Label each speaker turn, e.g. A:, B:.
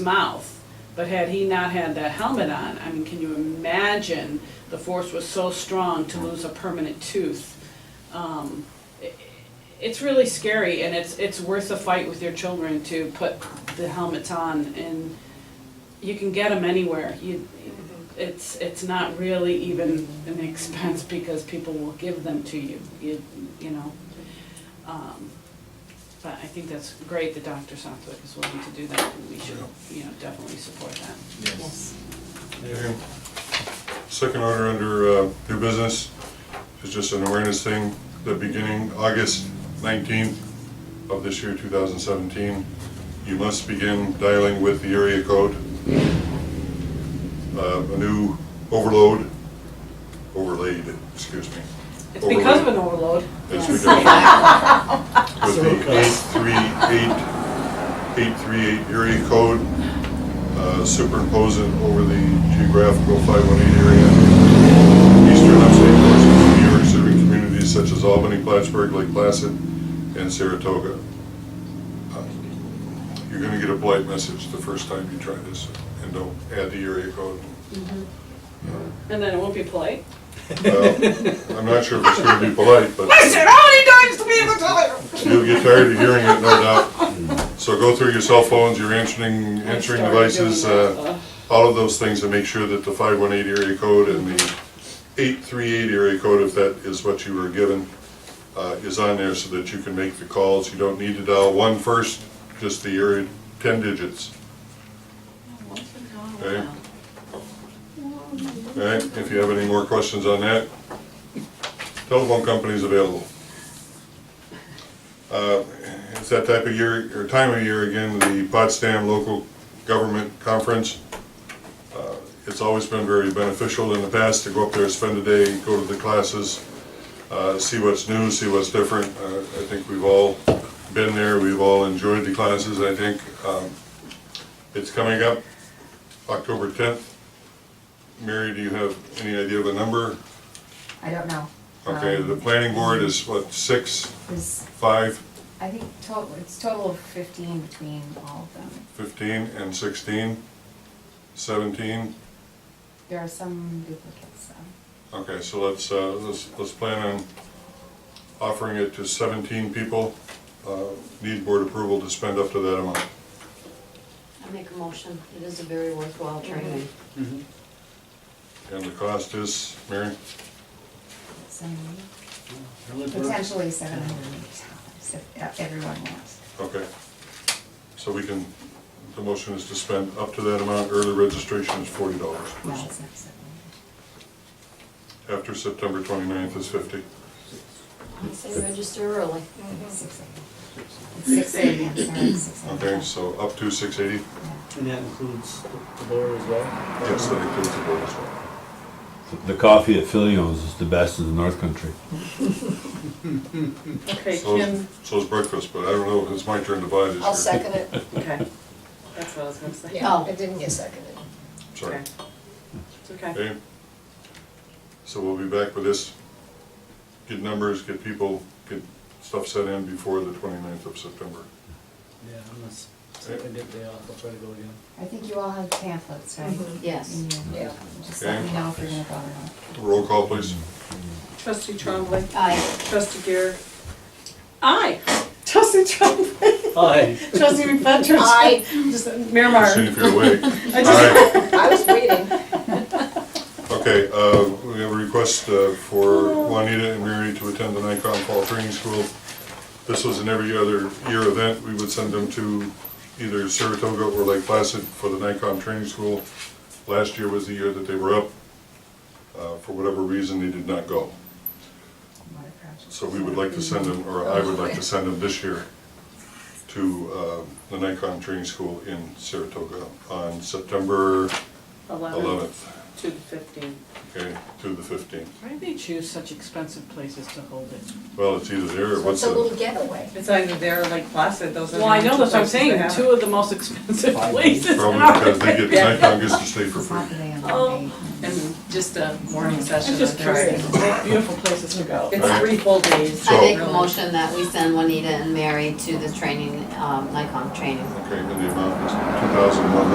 A: mouth. But had he not had that helmet on, I mean, can you imagine the force was so strong to lose a permanent tooth? Um, i- It's really scary and it's, it's worth a fight with your children to put the helmets on and you can get them anywhere. You, it's, it's not really even an expense because people will give them to you, you, you know. Um, But I think that's great that Dr. Southwick is willing to do that, and we should, you know, definitely support that.
B: Yes.
C: Okay. Second order under uh, new business is just an awareness thing, the beginning, August 19th of this year, 2017, you must begin dialing with the area code. Uh, A new overload, overlaid, excuse me.
A: It's because of an
C: overlaid.
A: overload.
C: It's
A: Yes.
C: ridiculous. With the eight-three-eight, eight-three-eight area code uh, superimposing over the geographical five-one-eight area. Eastern upstate portions of New York serving communities such as Albany, Plattsburgh, Lake Placid, and Saratoga. Uh, You're gonna get a blight message the first time you try this, and don't add the area code.
A: And then it won't be polite.
C: Well, I'm not sure if it's gonna be polite, but.
A: how many times do we have to tell you?
C: You'll get tired of hearing it, no doubt. So go through your cell phones, your answering, answering devices, uh, all of those things, and make sure that the 518 area code and the 838 area code, if that is what you were given, uh, is on there so that you can make the calls. You don't need to dial one first, just the area, 10 digits. Okay. All right, if you have any more questions on that, telephone company's available. Uh, It's that type of year, or time of year again, the Potsdam Local Government Conference. Uh, It's always been very beneficial in the past to go up there, spend a day, go to the classes, uh, see what's new, see what's different. Uh, I think we've all been there, we've all enjoyed the classes, I think. Um, It's coming up, October 10th. Mary, do you have any idea of a number?
D: I don't know.
C: Okay,
D: Um,
C: the planning board is what, six,
D: There's,
C: five?
D: I think, total, it's total of fifteen between all of them.
C: 15 and 16, 17.
D: There are some duplicates, so.
C: Okay, so let's, uh, let's, let's plan on offering it to 17 people. Uh, Need board approval to spend up to that amount.
E: I make a motion, it is a very worthwhile training.
C: And the cost is, Mary?
D: some-
B: Really good.
D: Potentially seven hundred and eighty dollars if uh, everyone wants.
C: Okay. So we can, the motion is to spend up to that amount. Early registration is
D: No,
C: $40.
D: it's not seven hundred.
C: After September 29th is 50.
E: I say register early.
F: Mm-hmm.
D: Six eighty. It's six eighty, I'm sorry, six eighty.
C: Okay, so up to 680.
D: Yeah.
B: And that includes the the board as well?
C: Yes, that includes the board as well.
G: The coffee at Filio's is the best in the North Country.
H: Okay,
C: So
H: Kim,
C: So's breakfast, but I don't know, it's my turn to buy this year.
F: I'll second it.
H: okay, that's what I was gonna say.
F: Yeah, it didn't get seconded.
C: Sorry.
H: Okay. It's okay.
C: Okay, so we'll be back with this, get numbers, get people, get stuff set in before the 29th of September.
B: Yeah, unless, if I did day off, I'll try to go again.
D: I think you all have pamphlets, right?
E: Yes.
D: And you-
F: Mm-hmm. Yeah.
D: Just let me
C: Okay.
D: know if you're gonna go or not.
C: Roll call, please.
H: Trustee Trombley,
E: Aye.
H: trustee Garrett,
A: Aye.
H: trustee Trombley,
B: Aye.
H: trustee McFetrich.
F: Aye.
H: Just Miramar.
C: See if you're awake.
H: I just,
C: Aye.
F: I was waiting.
C: Okay, uh, we have a request uh, for Juanita and Mary to attend the Nikon Fall Training School. This was an every other year event. We would send them to either Saratoga or Lake Placid for the Nikon Training School. Last year was the year that they were up. Uh, For whatever reason, they did not go.
D: Water project.
C: So we would like to send them, or I would like to send them this year to uh, the Nikon Training School in Saratoga on September
H: eleven
C: 11th,
H: to the fifteen.
C: okay, through the 15th.
A: Why do they choose such expensive places to hold it?
C: Well, it's either there or
F: So
C: what's
F: It's a little
C: the,
F: getaway.
H: It's either there or Lake Placid, those are.
A: Well, I know that's what I'm saying,
H: too.
A: two of the most expensive
B: Five.
A: places
C: probably
A: are.
C: because they get, Nikon gets to stay for
D: It's not the
C: free.
D: day on
H: Oh.
D: the day.
H: And just a morning session.
A: I'm just
H: on Thursday.
A: curious, What beautiful places to go.
H: It's three full days.
C: So-
E: I make a motion that we send Juanita and Mary to the training, um, Nikon training.
C: Okay, and the amount is 2,100.